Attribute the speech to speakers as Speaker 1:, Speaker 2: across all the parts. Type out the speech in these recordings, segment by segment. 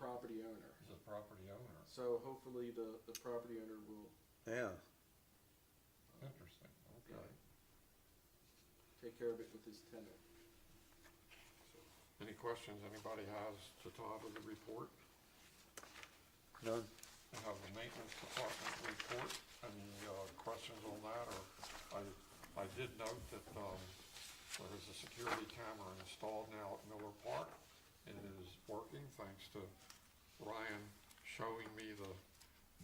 Speaker 1: property owner.
Speaker 2: He's a property owner.
Speaker 1: So hopefully the, the property owner will
Speaker 3: yeah,
Speaker 2: Interesting, okay.
Speaker 1: take care of it with his tenant.
Speaker 2: Any questions anybody has to Todd with the report?
Speaker 3: none,
Speaker 2: I have the maintenance department report, any, uh, questions on that, or, I, I did note that, um, there is a security camera installed now at Miller Park, and it is working, thanks to Ryan showing me the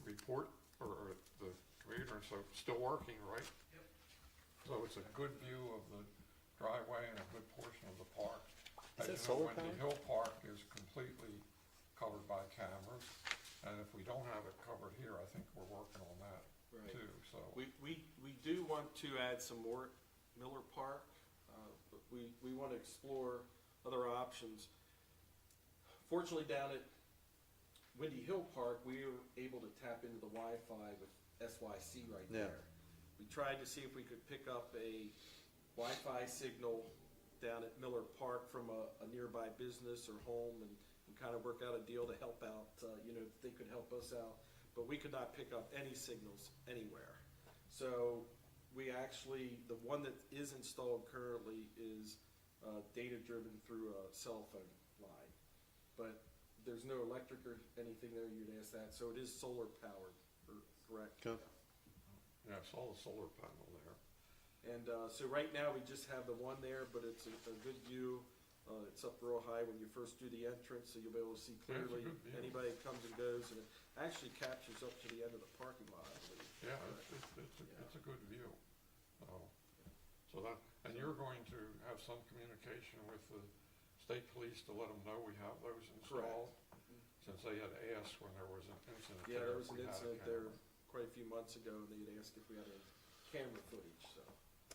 Speaker 2: report, or, or the computer, and so, it's still working, right? Yep. So it's a good view of the driveway and a good portion of the park. As
Speaker 3: Is
Speaker 2: you know,
Speaker 3: that solar
Speaker 2: Wendy
Speaker 3: powered?
Speaker 2: Hill Park is completely covered by cameras, and if we don't have it covered here, I think we're working on that
Speaker 1: Right.
Speaker 2: too, so.
Speaker 1: We, we, we do want to add some more at Miller Park, uh, but we, we want to explore other options. Fortunately, down at Windy Hill Park, we were able to tap into the Wi-Fi with SYC right
Speaker 3: Yeah.
Speaker 1: there. We tried to see if we could pick up a Wi-Fi signal down at Miller Park from a, a nearby business or home and, and kind of work out a deal to help out, uh, you know, if they could help us out. But we could not pick up any signals anywhere. So we actually, the one that is installed currently is uh, data-driven through a cell phone line. But there's no electric or anything there, you'd ask that, so it is solar powered, or- correct?
Speaker 3: Okay.
Speaker 2: Yeah, I saw the solar panel there.
Speaker 1: And uh, so right now, we just have the one there, but it's a a good view. Uh, It's up real high when you first do the entrance, so you'll be able to see
Speaker 2: Yeah, it's a
Speaker 1: clearly
Speaker 2: good view.
Speaker 1: anybody that comes and goes, and it actually captures up to the end of the parking lot, I believe.
Speaker 2: Yeah, it's, it's, it's, a- it's a good view. So- So that, and you're going to have some communication with the state police to let them know we have those installed? Since they had asked when there was an incident
Speaker 1: Yeah,
Speaker 2: there. if
Speaker 1: there was an
Speaker 2: we had a
Speaker 1: incident
Speaker 2: camera.
Speaker 1: there quite a few months ago, and they'd asked if we had a camera footage, so.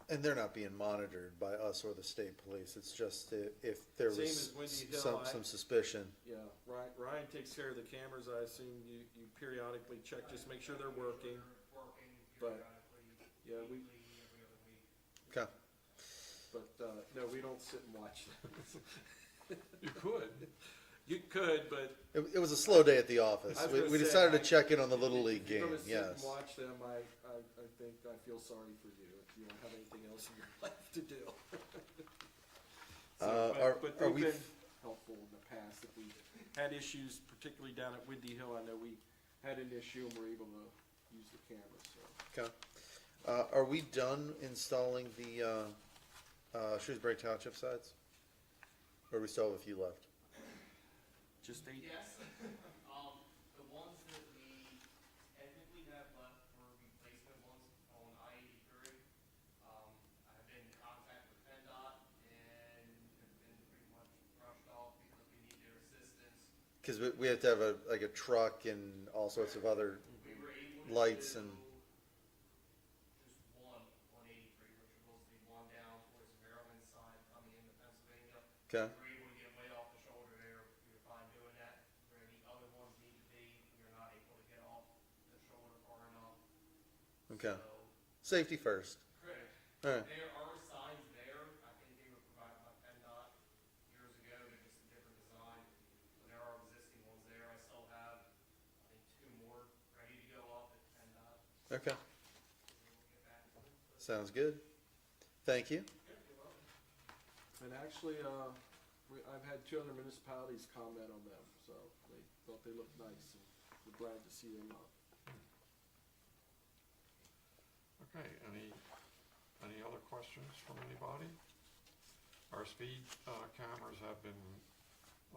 Speaker 3: and they're not being monitored by us or the state police, it's just i- if there
Speaker 1: Same as
Speaker 3: was
Speaker 1: Windy Hill,
Speaker 3: s- some,
Speaker 1: I-
Speaker 3: some suspicion.
Speaker 1: Yeah, Ryan, Ryan takes care of the cameras, I assume you, you periodically check, just make sure they're working.
Speaker 4: Working
Speaker 1: But-
Speaker 4: periodically,
Speaker 1: Yeah, we,
Speaker 4: weekly, every other week.
Speaker 3: Okay,
Speaker 1: but, uh, no, we don't sit and watch them.
Speaker 2: You could,
Speaker 1: You could, but
Speaker 3: it, it was a slow day at the office,
Speaker 1: I was
Speaker 3: we,
Speaker 1: gonna
Speaker 3: we
Speaker 1: say,
Speaker 3: decided
Speaker 1: I-
Speaker 3: to check in on the Little League
Speaker 1: if you're
Speaker 3: game,
Speaker 1: gonna sit and
Speaker 3: yes.
Speaker 1: watch them, I, I, I think, I feel sorry for you if you don't have anything else in your life to do. So,
Speaker 3: Uh,
Speaker 1: but-
Speaker 3: are-
Speaker 1: But
Speaker 3: are
Speaker 1: they've
Speaker 3: we-
Speaker 1: been helpful in the past, if we had issues, particularly down at Windy Hill, I know we had an issue and were able to use the cameras, so.
Speaker 3: Okay, uh, are we done installing the, uh, uh, Shrewsbury Township sides? Or we still have a few left?
Speaker 1: Just eight,
Speaker 5: Yes, um, the ones that we technically have left for replacement ones on I eighty-three, um, I've been in contact with PennDOT and have been pretty much brushed off because we need their assistance.
Speaker 3: Cause we, we have to have a, like a truck and all sorts of other,
Speaker 5: We were able to
Speaker 3: Mm-hmm. Lights
Speaker 5: do
Speaker 3: and-
Speaker 5: just one on eighty-three, which was the one down towards Maryland side coming into Pennsylvania.
Speaker 3: okay,
Speaker 5: We're able to get way off the shoulder there, we were fine doing that, where the other ones need to be, we are not able to get off the shoulder far enough.
Speaker 3: okay,
Speaker 5: So,
Speaker 3: safety first,
Speaker 5: Correct.
Speaker 3: alright,
Speaker 5: There are signs there, I think they were provided by PennDOT years ago, they're just a different design. But there are existing ones there, I still have, I think, two more ready to go off at PennDOT,
Speaker 3: okay,
Speaker 5: so we'll get back to it. But,
Speaker 3: sounds good, thank you.
Speaker 5: yeah, you're welcome.
Speaker 1: And actually, uh, we, I've had two other municipalities comment on them, so they thought they looked nice, and we're glad to see them up.
Speaker 2: okay, any, any other questions from anybody? Our speed, uh, cameras have been,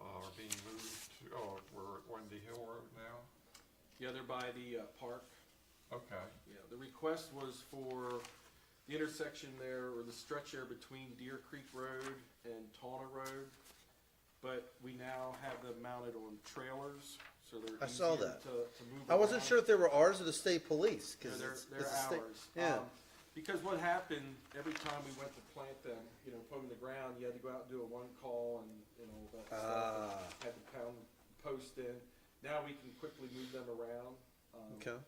Speaker 2: uh, are being moved to, oh, we're at Wendy Hill Road now?
Speaker 1: Yeah, they're by the, uh, park.
Speaker 2: Okay.
Speaker 1: Yeah, the request was for the intersection there, or the stretch there between Deer Creek Road and Tawna Road. But we now have them mounted on trailers, so they're
Speaker 3: I saw
Speaker 1: easier
Speaker 3: that.
Speaker 1: to, to move
Speaker 3: I wasn't
Speaker 1: around.
Speaker 3: sure if they were ours or the state police,
Speaker 1: Yeah,
Speaker 3: cause
Speaker 1: they're,
Speaker 3: it's,
Speaker 1: they're
Speaker 3: it's a state,
Speaker 1: ours.
Speaker 3: yeah.
Speaker 1: Um, Because what happened, every time we went to plant them, you know, put them in the ground, you had to go out and do a one call and, and all that stuff.
Speaker 3: Ah,
Speaker 1: Had to pound post in. Now we can quickly move them around. um,
Speaker 3: okay,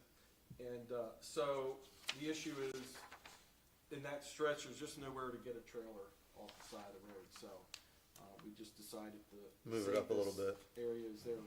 Speaker 1: And, uh, so the issue is, in that stretch, there's just nowhere to get a trailer off the side of the road, so, uh, we just decided to.
Speaker 3: move it
Speaker 1: save
Speaker 3: up a little
Speaker 1: this
Speaker 3: bit.
Speaker 1: Area is there